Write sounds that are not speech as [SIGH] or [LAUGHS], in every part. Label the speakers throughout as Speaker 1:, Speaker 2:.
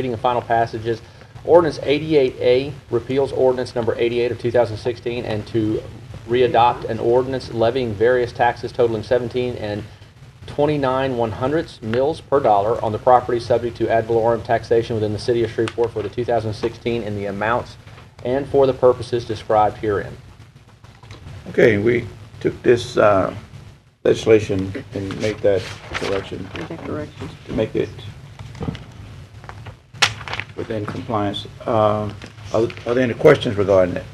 Speaker 1: reading and final passages. Ordinance 88A repeals ordinance number 88 of 2016 and to readopt an ordinance levying various taxes totaling 17 and 29 one hundredths mills per dollar on the property subject to ad valorem taxation within the city of Shreveport for the 2016 in the amounts and for the purposes described herein.
Speaker 2: Okay, we took this uh, legislation and made that correction.
Speaker 3: Make that correction.
Speaker 2: To make it within compliance. Uh, Are are there any questions regarding it?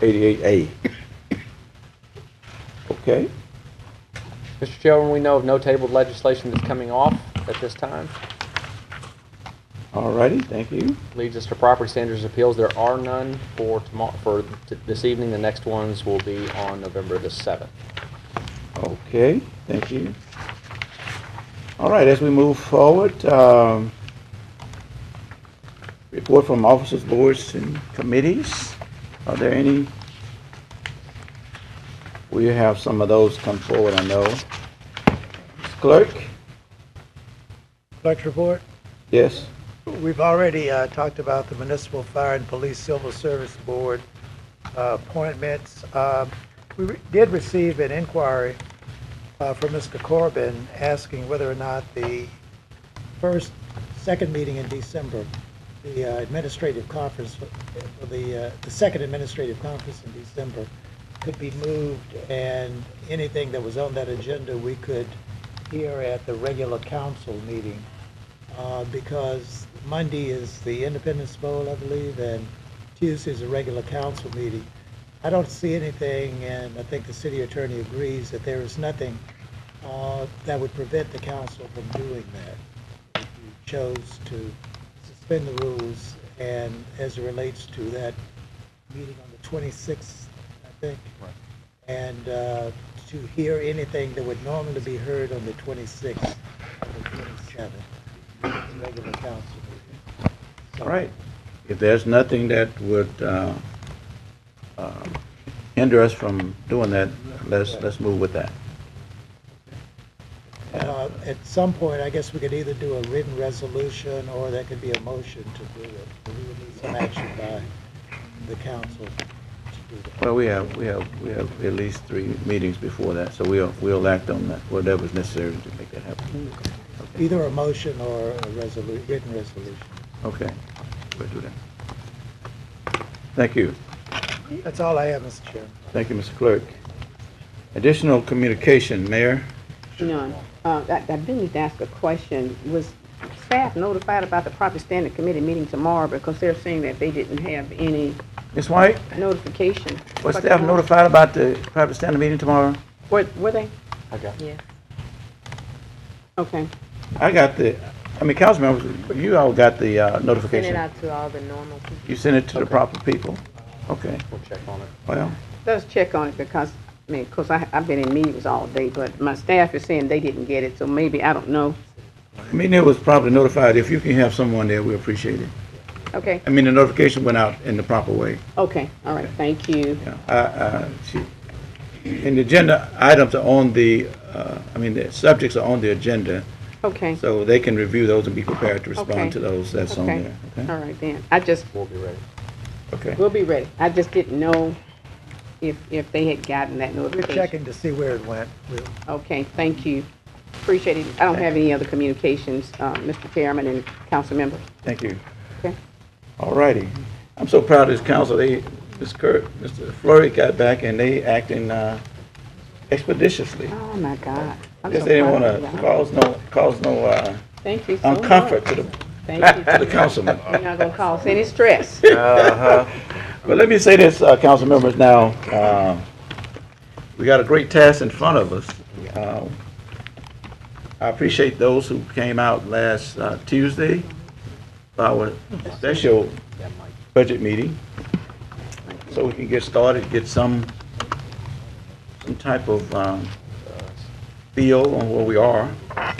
Speaker 2: 88A? [COUGHS] Okay,
Speaker 1: Mr. Chairman, we know of no tabled legislation that's coming off at this time.
Speaker 2: all righty, thank you.
Speaker 1: Leads us to property standards appeals. There are none for tomorrow, for t- this evening. The next ones will be on November the 7th.
Speaker 2: Okay, thank you. All right, as we move forward, um, report from officers, boards, and committees. Are there any? We have some of those come forward, I know. Ms. Clerk?
Speaker 4: Clerk's report.
Speaker 2: Yes?
Speaker 4: We've already uh, talked about the Municipal Fire and Police Civil Service Board uh, appointments. Uh, We re- did receive an inquiry uh, from Mr. Corbin asking whether or not the first, second meeting in December, the uh, administrative conference, for- for the, uh, the second administrative conference in December could be moved, and anything that was on that agenda, we could hear at the regular council meeting uh, because Monday is the Independence Bowl, I believe, and Tuesday is a regular council meeting. I don't see anything, and I think the city attorney agrees that there is nothing uh, that would prevent the council from doing that. If you chose to suspend the rules, and as it relates to that meeting on the 26th, I think, and uh, to hear anything that would normally be heard on the 26th and the 27th regular council meeting.
Speaker 2: All right. If there's nothing that would uh, uh, hinder us from doing that, let's, let's move with that.
Speaker 4: Uh, At some point, I guess we could either do a written resolution, or there could be a motion to do it. We would need some action by the council to do that.
Speaker 2: Well, we have, we have, we have at least three meetings before that, so we'll, we'll act on that, whatever's necessary to make that happen. Okay.
Speaker 4: Either a motion or a resolu, written resolution.
Speaker 2: Okay, we'll do that. Thank you.
Speaker 4: That's all I have, Mr. Chairman.
Speaker 2: Thank you, Mr. Clerk. Additional communication, Mayor?
Speaker 3: None. Uh, I, I do need to ask a question. Was staff notified about the property standard committee meeting tomorrow? Because they're saying that they didn't have any
Speaker 2: Ms. White,
Speaker 3: notification.
Speaker 2: was staff notified about the private standing meeting tomorrow?
Speaker 3: Were, were they?
Speaker 1: Okay.
Speaker 3: Yes. Okay.
Speaker 2: I got the, I mean, council members, you all got the uh,
Speaker 5: Send it
Speaker 2: notification.
Speaker 5: out to all the normal people.
Speaker 2: You sent it to the proper people? Okay,
Speaker 1: We'll check on it.
Speaker 2: well,
Speaker 3: Let's check on it because, I mean, 'cause I, I've been in meetings all day, but my staff is saying they didn't get it, so maybe, I don't know.
Speaker 2: I mean, it was probably notified. If you can have someone there, we appreciate it.
Speaker 3: Okay,
Speaker 2: I mean, the notification went out in the proper way.
Speaker 3: okay, all right, thank you.
Speaker 2: Yeah, I- I- she- uh, And the agenda items are on the, uh, I mean, the subjects are on the agenda,
Speaker 3: Okay,
Speaker 2: so they can review those and be prepared to
Speaker 3: Okay.
Speaker 2: respond to those that's on
Speaker 3: okay,
Speaker 2: there.
Speaker 3: all
Speaker 2: Okay?
Speaker 3: right then. I just
Speaker 1: We'll be ready.
Speaker 2: Okay.
Speaker 3: We'll be ready. I just didn't know if, if they had gotten that
Speaker 4: We're
Speaker 3: notification.
Speaker 4: checking to see where it went. We'll-
Speaker 3: Okay, thank you. Appreciate it. I don't have any other communications, uh, Mr. Chairman and council members.
Speaker 2: Thank you.
Speaker 3: Okay.
Speaker 2: All righty. I'm so proud of this council. They, Ms. Kurt, Mr. Flurry got back and they acting uh, expeditiously.
Speaker 3: Oh, my God. I'm
Speaker 2: Guess
Speaker 3: so
Speaker 2: they didn't
Speaker 3: proud
Speaker 2: want
Speaker 3: of
Speaker 2: to
Speaker 3: you.
Speaker 2: cause no, cause no uh,
Speaker 3: Thank you so much.
Speaker 2: uncomfort to the,
Speaker 3: Thank
Speaker 2: to [LAUGHS] the
Speaker 3: you.
Speaker 2: councilman.
Speaker 3: You're not gonna cause any
Speaker 2: [LAUGHS]
Speaker 3: stress.
Speaker 2: But let me say this, uh, council members, now, uh, we got a great task in front of us. Uh, I appreciate those who came out last uh, Tuesday, for our special budget meeting, so we can get started, get some, some type of um,
Speaker 1: Uh,
Speaker 2: feel on where we are. I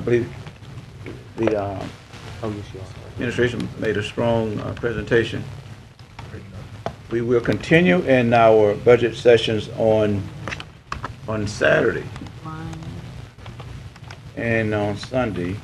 Speaker 2: believe the uh,
Speaker 1: Oh, yes, you are.
Speaker 2: administration made a strong uh, presentation. We will continue in our budget sessions on, on Saturday and on Sunday.